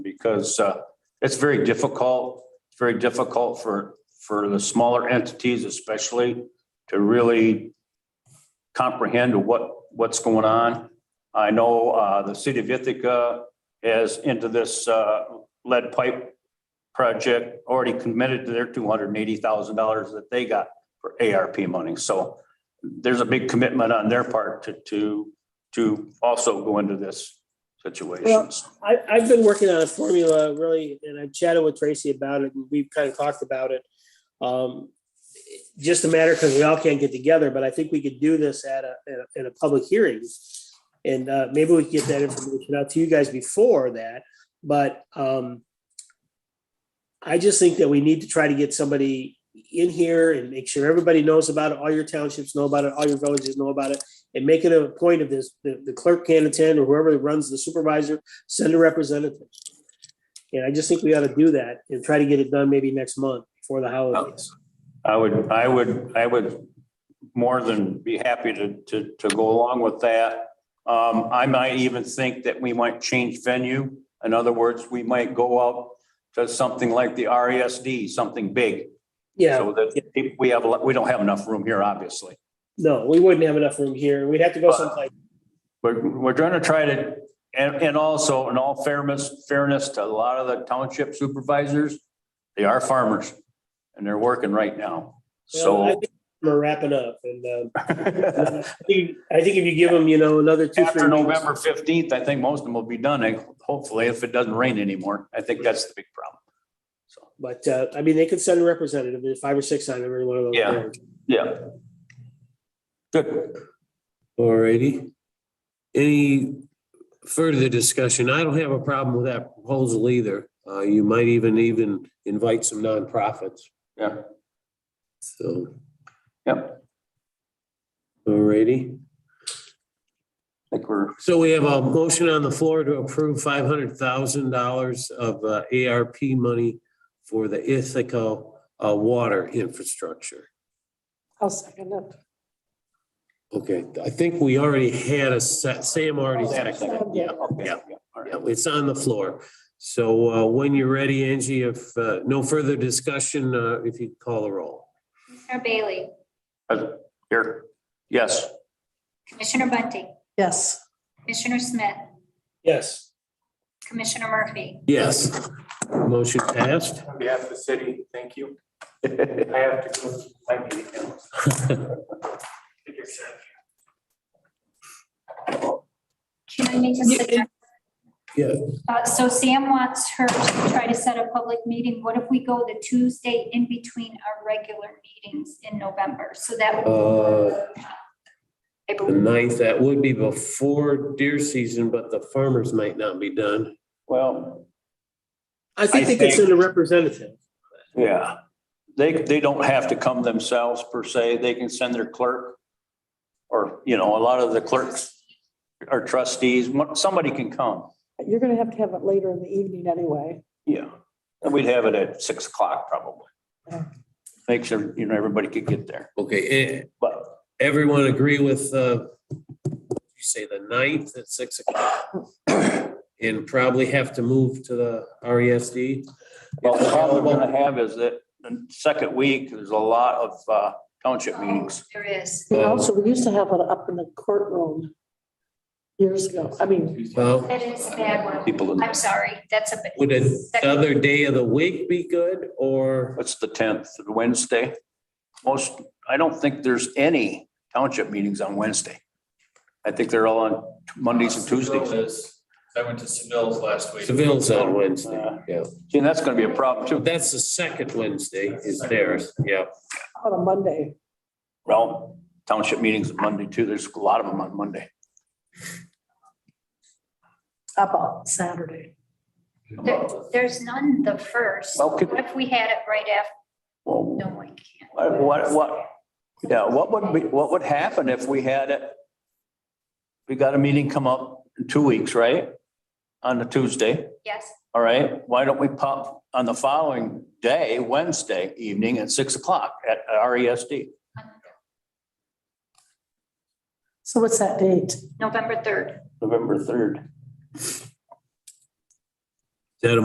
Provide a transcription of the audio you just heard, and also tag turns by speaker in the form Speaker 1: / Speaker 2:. Speaker 1: because uh, it's very difficult, It's very difficult for, for the smaller entities especially to really comprehend what, what's going on. I know uh, the city of Ithaca is into this uh, lead pipe project, already committed to their two hundred and eighty thousand dollars that they got for ARP money. So there's a big commitment on their part to, to, to also go into this situation. So-
Speaker 2: I, I've been working on a formula really, and I've chatted with Tracy about it, and we've kind of talked about it. Um, Just a matter, because we all can't get together, but I think we could do this at a, at a- at a public hearing. And uh, maybe we could get that information out to you guys before that, but um, I just think that we need to try to get somebody in here and make sure everybody knows about it, all your townships know about it, all your villages know about it, and make it a point of this, the the clerk can attend, or whoever runs the supervisor send a representative. And I just think we ought to do that and try to get it done maybe next month before the holidays.
Speaker 1: I would, I would, I would more than be happy to, to, to go along with that. Um, I might even think that we might change venue. In other words, we might go out to something like the RESD, something big.
Speaker 2: Yeah,
Speaker 1: So that if we have, a lot- we don't have enough room here, obviously.
Speaker 2: no, we wouldn't have enough room here. We'd have to go someplace.
Speaker 1: We're, we're going to try to, and, and also in all fairness, fairness to a lot of the township supervisors, they are farmers and they're working right now.
Speaker 2: Well, I
Speaker 1: So.
Speaker 2: think We're wrapping up and uh, I think I think if you give them, you know, another two,
Speaker 1: After
Speaker 2: three weeks.
Speaker 1: November fifteenth, I think most of them will be done, and hopefully, if it doesn't rain anymore. I think that's the big problem. So,
Speaker 2: But uh, I mean, they could send a representative, there's five or six on every one of those.
Speaker 1: Yeah.
Speaker 2: boards.
Speaker 1: yeah. Good.
Speaker 3: Alrighty. Any further discussion? I don't have a problem with that proposal either. Uh, you might even, even invite some nonprofits,
Speaker 1: Yeah,
Speaker 3: so.
Speaker 1: yeah.
Speaker 3: Alrighty.
Speaker 1: I think we're,
Speaker 3: So we have a motion on the floor to approve five hundred thousand dollars of uh, ARP money for the Ithaca uh, water infrastructure.
Speaker 4: I'll second it.
Speaker 3: Okay, I think we already had a, se- Sam already had a second. Yeah,
Speaker 1: okay,
Speaker 3: yeah.
Speaker 1: yeah, all right.
Speaker 3: Yeah, it's on the floor. So uh, when you're ready, Angie, if uh, no further discussion, uh, if you call the roll.
Speaker 5: Commissioner Bailey,
Speaker 1: Uh, Here, yes,
Speaker 5: Commissioner Bunting,
Speaker 4: Yes,
Speaker 5: Commissioner Smith,
Speaker 2: Yes,
Speaker 5: Commissioner Murphy,
Speaker 3: Yes. Motion passed.
Speaker 6: On behalf of the city, thank you. I have to go to my meeting now. Take care, sir.
Speaker 5: can I make a suggestion?
Speaker 3: Yeah.
Speaker 5: Uh, so Sam wants her to try to set a public meeting. What if we go the Tuesday in between our regular meetings in November? So that would.
Speaker 3: Uh, The
Speaker 5: April-
Speaker 3: ninth, that would be before deer season, but the farmers might not be done.
Speaker 1: well,
Speaker 2: I think
Speaker 1: I
Speaker 2: they could
Speaker 1: think-
Speaker 2: send a representative.
Speaker 1: yeah. They, they don't have to come themselves per se, they can send their clerk. Or, you know, a lot of the clerks or trustees, one- somebody can come,
Speaker 4: you're gonna have to have it later in the evening anyway.
Speaker 1: yeah. And we'd have it at six o'clock probably.
Speaker 4: Yeah.
Speaker 1: Make sure, you know, everybody could get there,
Speaker 3: Okay, eh,
Speaker 1: but
Speaker 3: everyone agree with, uh, you say the ninth at six o'clock? And probably have to move to the E RESD?
Speaker 1: Well, the problem we're gonna have is that the second week, there's a lot of uh, township meetings.
Speaker 5: Oh, There is.
Speaker 4: And also, we used to have it up in the courtroom years ago. I mean,
Speaker 3: Well,
Speaker 5: That is a bad one.
Speaker 1: People,
Speaker 5: I'm sorry, that's a. bad-
Speaker 3: Would
Speaker 5: Second-
Speaker 3: another day of the week be good or?
Speaker 1: what's the tenth, Wednesday? Most, I don't think there's any township meetings on Wednesday. I think they're all on Mondays and Tuesdays.
Speaker 7: I went to Seville's last week.
Speaker 3: Seville's on Wednesday, yeah.
Speaker 1: See, And that's gonna be a problem
Speaker 3: So
Speaker 1: too.
Speaker 3: that's the second Wednesday is theirs, yeah.
Speaker 4: on a Monday.
Speaker 1: Well, township meetings on Monday too. There's a lot of them on Monday.
Speaker 4: How about Saturday?
Speaker 5: There- There's none the first.
Speaker 1: Well, could-
Speaker 5: What if we had it right after?
Speaker 1: Well,
Speaker 5: No, we can't.
Speaker 1: what, what- what, yeah, what would be, what would happen if we had it? We got a meeting come up in two weeks, right? On the Tuesday.
Speaker 5: Yes,
Speaker 1: All right, why don't we pop on the following day, Wednesday evening at six o'clock at E RESD?
Speaker 4: So what's that date?
Speaker 5: November 3rd.
Speaker 1: November third.